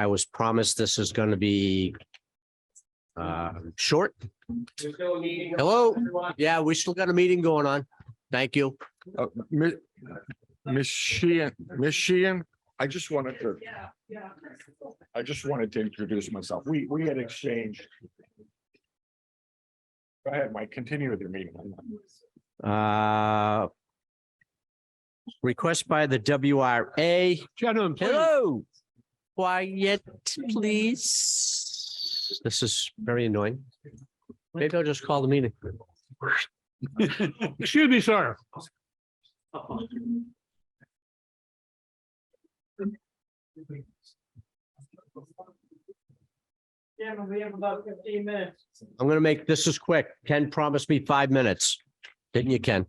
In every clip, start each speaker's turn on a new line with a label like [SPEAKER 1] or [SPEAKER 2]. [SPEAKER 1] I was promised this is going to be uh, short.
[SPEAKER 2] There's no meeting.
[SPEAKER 1] Hello?
[SPEAKER 2] Everyone,
[SPEAKER 1] Yeah, we still got a meeting going on. Thank you.
[SPEAKER 3] Uh, Mi- Miss Sheehan, Miss Sheehan, I just wanted to. I just wanted to introduce myself. We, we had exchanged. Go ahead, Mike, continue with your meeting.
[SPEAKER 1] Uh, Request by the WRA.
[SPEAKER 3] Gentlemen,
[SPEAKER 1] Hello. Quiet, please. This is very annoying. Maybe I'll just call the meeting.
[SPEAKER 4] Excuse me, sir.
[SPEAKER 2] Chairman, we have about fifteen minutes.
[SPEAKER 1] I'm gonna make, this is quick. Ken promised me five minutes. Didn't you, Ken?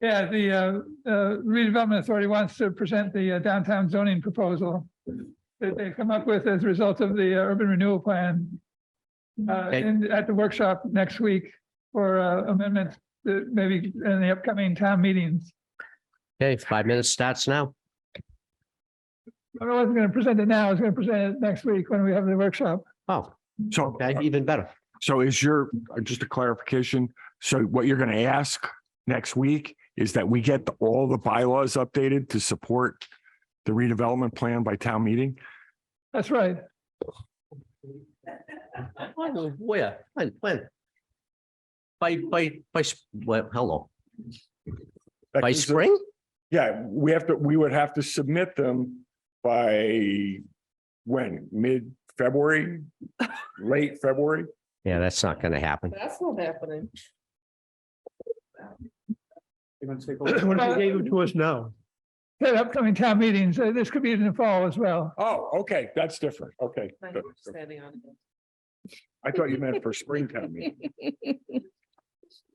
[SPEAKER 5] Yeah, the uh, uh, redevelopment authority wants to present the uh, downtown zoning proposal that they've come up with as a result of the uh, urban renewal plan. Uh,
[SPEAKER 1] Okay.
[SPEAKER 5] and at the workshop next week for uh, amendments, that maybe in the upcoming town meetings.
[SPEAKER 1] Okay, five minutes starts now.
[SPEAKER 5] I wasn't going to present it now, I was going to present it next week when we have the workshop.
[SPEAKER 1] Oh,
[SPEAKER 3] So,
[SPEAKER 1] okay, even better.
[SPEAKER 3] so is your, uh, just a clarification, so what you're gonna ask next week is that we get the- all the bylaws updated to support the redevelopment plan by town meeting?
[SPEAKER 5] That's right.
[SPEAKER 1] Where, when, when? By, by, by, s- well, hello,
[SPEAKER 3] That
[SPEAKER 1] by
[SPEAKER 3] gives us-
[SPEAKER 1] spring?
[SPEAKER 3] Yeah, we have to, we would have to submit them by when? Mid-February? Late February?
[SPEAKER 1] Yeah, that's not gonna happen.
[SPEAKER 6] That's not happening.
[SPEAKER 4] What if they gave it to us now?
[SPEAKER 5] Uh, At upcoming town meetings, uh, this could be in the fall as well.
[SPEAKER 3] Oh, okay, that's different. Okay.
[SPEAKER 6] Like, we're standing on
[SPEAKER 3] I thought you meant for springtime. meeting.
[SPEAKER 6] it.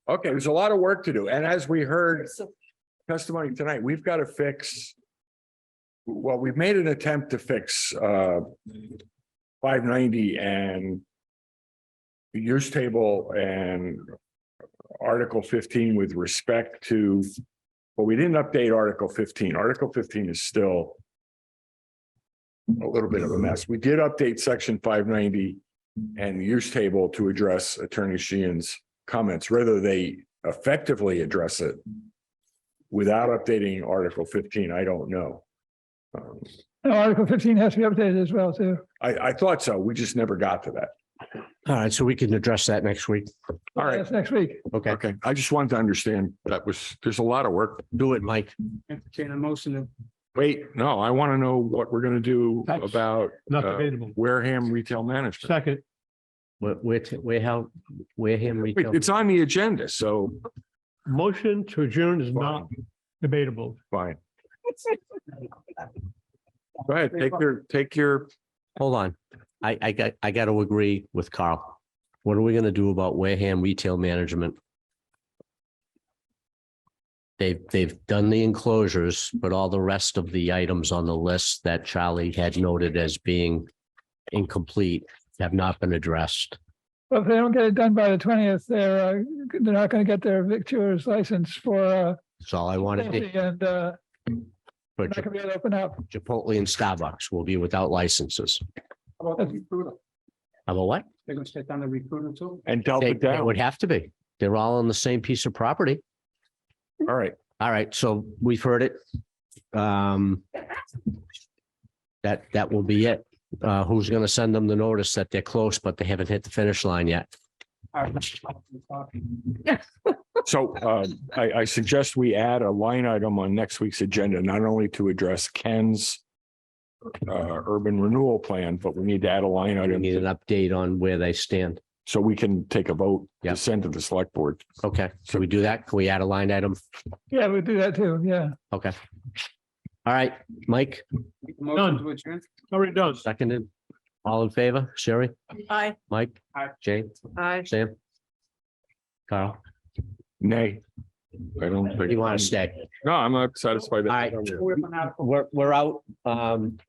[SPEAKER 3] Okay, there's a lot of work to do. And as we heard
[SPEAKER 6] So,
[SPEAKER 3] testimony tonight, we've got to fix. Well, we've made an attempt to fix uh five ninety and the use table and article fifteen with respect to, but we didn't update article fifteen. Article fifteen is still a little bit of a mess. We did update section five ninety and the use table to address Attorney Sheehan's comments, whether they effectively address it without updating Article fifteen, I don't know. Um,
[SPEAKER 5] And Article fifteen has to be updated as well, too.
[SPEAKER 3] I, I thought so. We just never got to that.
[SPEAKER 1] All right, so we can address that next week.
[SPEAKER 3] All right.
[SPEAKER 5] That's next week.
[SPEAKER 1] Okay,
[SPEAKER 3] Okay, I just wanted to understand that was, there's a lot of work.
[SPEAKER 1] do it, Mike.
[SPEAKER 4] Entertain a motion to.
[SPEAKER 3] Wait, no, I want to know what we're going to do
[SPEAKER 4] That's-
[SPEAKER 3] about
[SPEAKER 4] Not
[SPEAKER 3] Uh,
[SPEAKER 4] debatable.
[SPEAKER 3] Wareham Retail Management.
[SPEAKER 4] Second,
[SPEAKER 1] We're, we're, t- we're how, we're him.
[SPEAKER 3] Wait, It's on the agenda, so
[SPEAKER 4] motion to adjourn is not debatable.
[SPEAKER 3] fine. Go ahead, take your, take your,
[SPEAKER 1] Hold on. I, I got, I got to agree with Carl. What are we going to do about Wareham Retail Management? They've, they've done the enclosures, but all the rest of the items on the list that Charlie had noted as being incomplete have not been addressed.
[SPEAKER 5] Well, if they don't get it done by the twentieth, they're, uh, they're not gonna get their victualler's license for, uh,
[SPEAKER 1] That's all I wanted to,
[SPEAKER 5] Chelsea and, uh,
[SPEAKER 1] for
[SPEAKER 5] they're not gonna be able to open up.
[SPEAKER 1] Chipotle and Starbucks will be without licenses.
[SPEAKER 4] About
[SPEAKER 5] the
[SPEAKER 4] recruiter,
[SPEAKER 1] How about what?
[SPEAKER 4] they're gonna step down the recruiter too?
[SPEAKER 3] and delta
[SPEAKER 1] They
[SPEAKER 3] it
[SPEAKER 1] they
[SPEAKER 3] down.
[SPEAKER 1] would have to be. They're all on the same piece of property.
[SPEAKER 3] All right,
[SPEAKER 1] All right, so we've heard it. Um. That, that will be it. Uh, who's gonna send them the notice that they're close, but they haven't hit the finish line yet?
[SPEAKER 3] so uh, I, I suggest we add a line item on next week's agenda, not only to address Ken's uh, urban renewal plan, but we need to add a line
[SPEAKER 1] We
[SPEAKER 3] item
[SPEAKER 1] need
[SPEAKER 3] to
[SPEAKER 1] an update on where they stand.
[SPEAKER 3] So we can take a vote
[SPEAKER 1] Yeah.
[SPEAKER 3] to send to the select board.
[SPEAKER 1] Okay, so we do that. Can we add a line item?
[SPEAKER 5] Yeah, we do that too, yeah.
[SPEAKER 1] Okay. All right, Mike,
[SPEAKER 4] Done. Already done.
[SPEAKER 1] seconded. All in favor? Sherry,
[SPEAKER 6] Hi,
[SPEAKER 1] Mike,
[SPEAKER 4] Aye.
[SPEAKER 1] Jane,
[SPEAKER 6] hi.
[SPEAKER 1] Sam? Carl,
[SPEAKER 3] Nay. I don't think.
[SPEAKER 1] you want to stay?
[SPEAKER 3] No, I'm not satisfied.
[SPEAKER 1] All right. We're, we're out. Um,